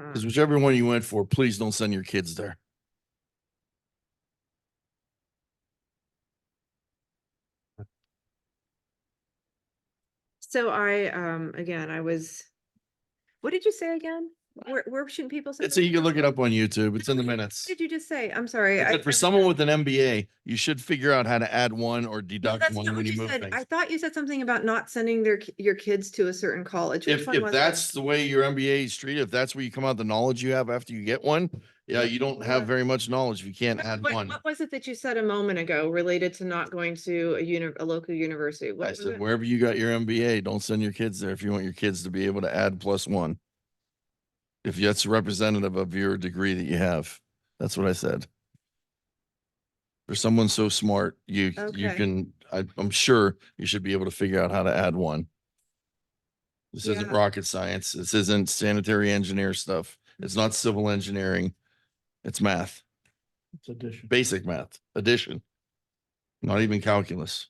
Hmm. Mm. Because whichever one you went for, please don't send your kids there. So I, um, again, I was, what did you say again? Where, where shouldn't people? send It's, you can themselves? look it up on YouTube. It's in the minutes. What Did you just say? I'm sorry. I I- said, I For was- someone with an MBA, you should figure out how to add one or No, deduct that's one not when what you you move said. I things. thought you said something about not sending their, ki- your kids to a certain college. Which If, one if was it? that's the way your MBA is treated, if that's where you come out, the knowledge you have after you get one, yeah, you don't have Yeah. very much knowledge if you can't What- add what- one. What was it that you said a moment ago related to not going to a uni, a local university? What I was said, it? wherever you got your MBA, don't send your kids there if you want your kids to be able to add plus one. If that's representative of your degree that you have, that's what I said. For someone so smart, you, you Okay. can, I, I'm sure you should be able to figure out how to add one. This isn't Yeah. rocket science. This isn't sanitary engineer stuff. It's not civil engineering. It's math, It's addition. basic math, addition. Not even calculus.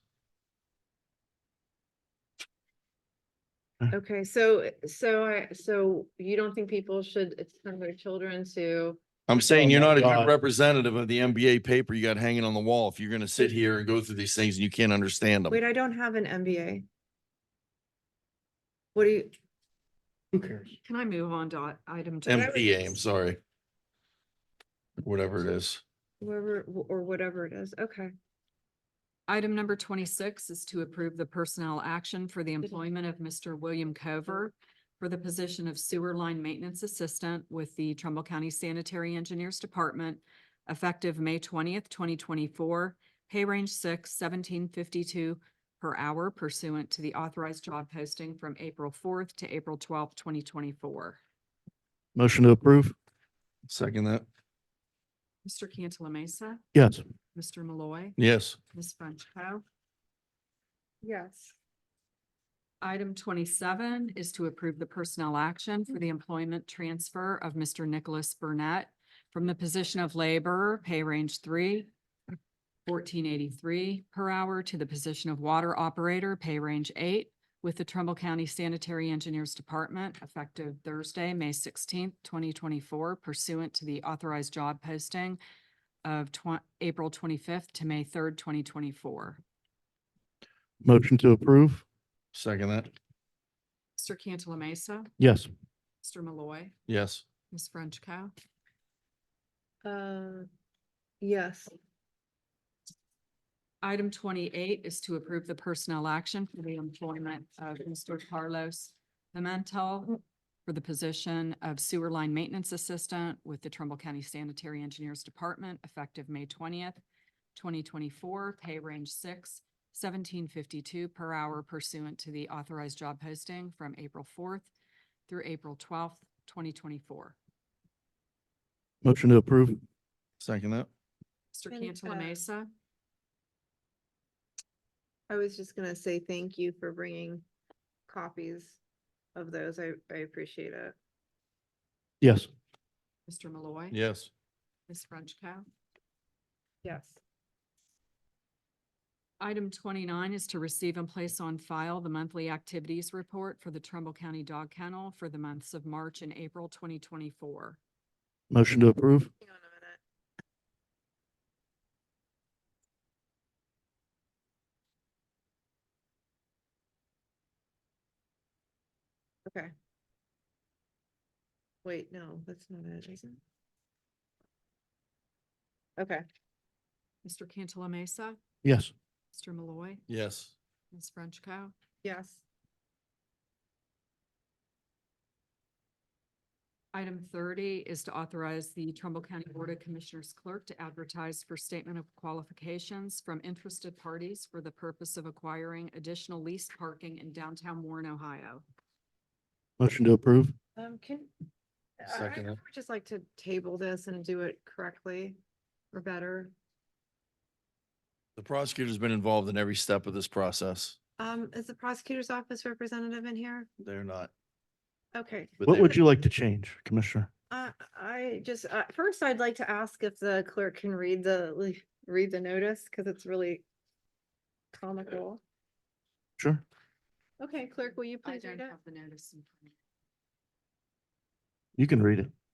Okay, so, so I, so you don't think people should send their children to? I'm saying Oh you're my not a good God. representative of the MBA paper you got hanging on the wall if you're gonna sit here and go through these things and you can't understand Wait, them. I don't have an MBA. What do you, Who cares? Can I move on to i- item? two? MBA, I'm sorry. Whatever it is. whoever, or whatever it is, okay. Item number twenty-six is to approve the personnel action for the employment of Mr. William Cover for the position of sewer line maintenance assistant with the Trumbull County Sanitary Engineers Department effective May twentieth, twenty twenty-four, pay range six, seventeen fifty-two per hour pursuant to the authorized job posting from April fourth to April twelfth, twenty twenty-four. Motion to approve? Second that. Mr. Cantala Mesa, Yes. Mr. Malloy, Yes. Ms. Frenchco. Yes. Item twenty-seven is to approve the personnel action for the employment transfer of Mr. Nicholas Burnett from the position of laborer, pay range three, fourteen eighty-three per hour to the position of water operator, pay range eight, with the Trumbull County Sanitary Engineers Department effective Thursday, May sixteenth, twenty twenty-four pursuant to the authorized job posting of twen- April twenty-fifth to May third, twenty twenty-four. Motion to approve? Second that. Mr. Cantala Mesa, Yes. Mr. Malloy, Yes. Ms. Frenchco. Uh, yes, Item twenty-eight is to approve the personnel action for the employment of Mr. Carlos Pimentel for the position of sewer line maintenance assistant with the Trumbull County Sanitary Engineers Department effective May twentieth, twenty twenty-four, pay range six, seventeen fifty-two per hour pursuant to the authorized job posting from April fourth through April twelfth, twenty twenty-four. Motion to approve? Second that. Mr. And, uh, Cantala Mesa, I was just gonna say thank you for bringing copies of those. I, I appreciate it. Yes. Mr. Malloy. Yes. Ms. Frenchco. Yes. Item twenty-nine is to receive and place on file the monthly activities report for the Trumbull County Dog Kennel for the months of March and April twenty twenty-four. Motion to approve? Hang on a minute. Okay. Wait, no, that's not it, is it? Okay, Mr. Cantala Mesa, Yes. Mr. Malloy, Yes. Ms. Frenchco. yes. Item thirty is to authorize the Trumbull County Board of Commissioners clerk to advertise for statement of qualifications from interested parties for the purpose of acquiring additional leased parking in downtown Warren, Ohio. Motion to approve? Um, can, I- I Second I it. would just like to table this and do it correctly or better. The prosecutor's been involved in every step of this process. Um, is the prosecutor's office representative in here? They're not. Okay, but What they- would you like to change, Commissioner? Uh, I just, uh, first I'd like to ask if the clerk can read the, le- read the notice, because it's really comical. Sure. Okay, clerk, will you I please don't read it? have the notice in front of me. You can read it.